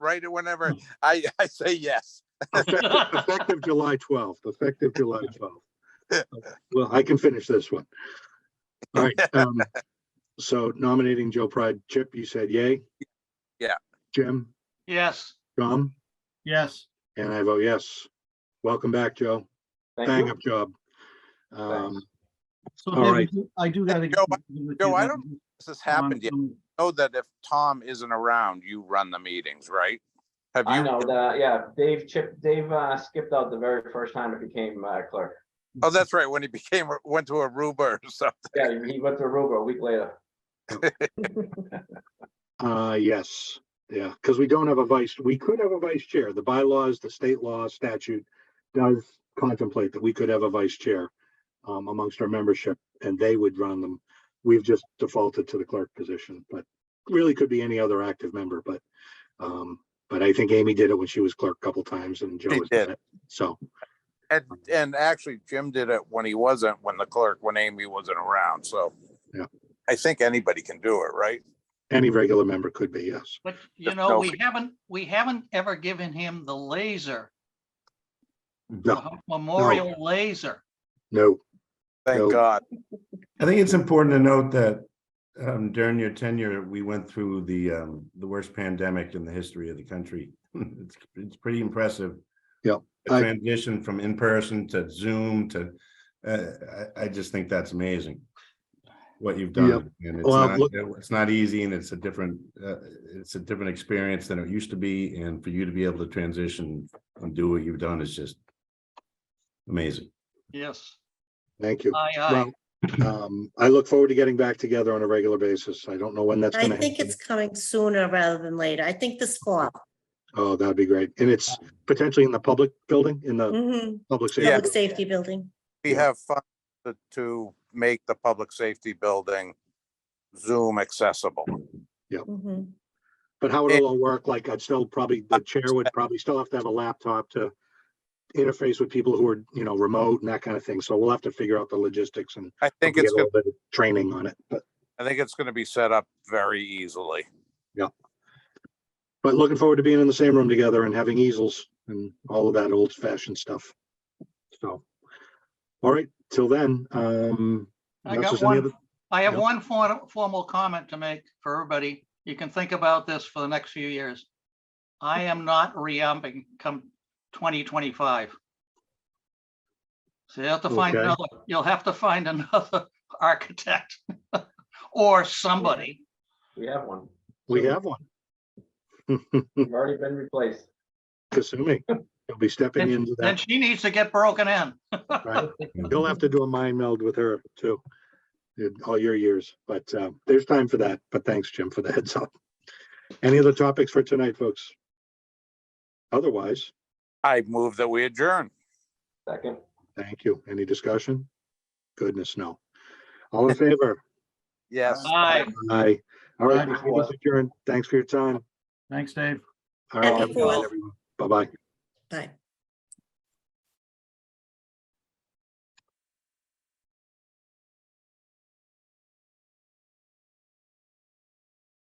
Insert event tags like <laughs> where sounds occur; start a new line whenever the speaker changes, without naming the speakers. right? Whenever I, <laughs> I say yes.
Effective effective July twelfth, effective July twelfth. Well, I can finish this one. All right, um, so nominating Joe Pride, Chip, you said yay?
Yeah.
Jim,
<laughs> Yes,
Tom,
yes.
and I vote yes. Welcome back, Joe.
Thank
Bang
you.
up job. Um,
So
All right.
David, I do gotta.
Joe, Joe, I don't- This has happened yet. Know that if Tom isn't around, you run the meetings, right? Have
I know
you?
that, yeah, Dave Chip, Dave uh, skipped out the very first time it became uh, clerk.
Oh, that's right. When he <laughs> became, went to Aruba or something.
Yeah, he went to Aruba a week later.
uh, yes, yeah, because we don't have a vice, we could have a vice chair. The bylaws, the state law statute does contemplate that we could have a vice chair um, amongst our membership and they would run them. We've just defaulted to the clerk position, but really could be any other active member, but um, but I think Amy did it when she was clerk a couple times and Joe
She
has done
did.
it. So,
And, and actually Jim did it when he wasn't, when the clerk, when Amy wasn't around. So.
Yeah.
I think anybody can do it, right?
any regular member could be, yes.
But you
Just
know,
tell
we
me.
haven't, we haven't ever given him the laser,
No,
the memorial laser.
no, No.
Thank God.
I think it's important to note that um, during your tenure, we went through the um, the worst pandemic in the history of the country. <laughs> It's, it's pretty impressive.
Yeah,
The
I-
transition from in-person to Zoom to, uh, I, I just think that's amazing. What you've
Yeah.
done. And it's
Well,
not,
look-
it's not easy and it's a different, uh, it's a different experience than it used to be. And for you to be able to transition and do what you've done is just amazing.
Yes,
thank you.
aye,
Uh,
aye.
Well, um, I look forward to getting back together on a regular basis. I don't know when that's
I
gonna
think
happen.
it's coming sooner rather than later. I think this fall.
Oh, that'd be great. And it's potentially in the public building, in
Mm-hmm.
the
Mhm.
public
Public
safety.
safety building.
We have funds to- to make the public safety building Zoom accessible.
Mhm.
But how it'll all work, like I'd still probably, the chair would probably still have to have a laptop to interface with people who are, you know, remote and that kind of thing. So we'll have to figure out the logistics and
I think
get
it's,
a
gonna
little bit of Training on it, but,
I think it's gonna be set up very easily.
but looking forward to being in the same room together and having easels and all of that old fashioned stuff. So, all right, till then, um.
I got
unless there's any
one,
other-
I have
Yep.
one for- formal comment to make for everybody. You can think about this for the next few years. I am not re-upping come twenty twenty-five. So you'll have to find
Okay.
another, you'll have to find another <laughs> architect <laughs> or somebody.
We have one.
We have one.
We've already been replaced.
<laughs> Kasumi, he'll be stepping
Then-
into
Then
that.
she needs to get broken in.
right? He'll have to do a mind meld with her too. in All your years, but uh, there's time for that. But thanks, Jim, for the heads up. Any other topics for tonight, folks? Otherwise,
I move that we adjourn.
Second,
thank you. Any discussion? Goodness, no. All in favor?
Yes.
Aye.
Aye. All right,
Aye.
this meeting's adjourned. Thanks for your time.
Thanks, Dave.
All right,
Happy
have a good night,
Fourth.
everyone. Bye-bye.
Bye.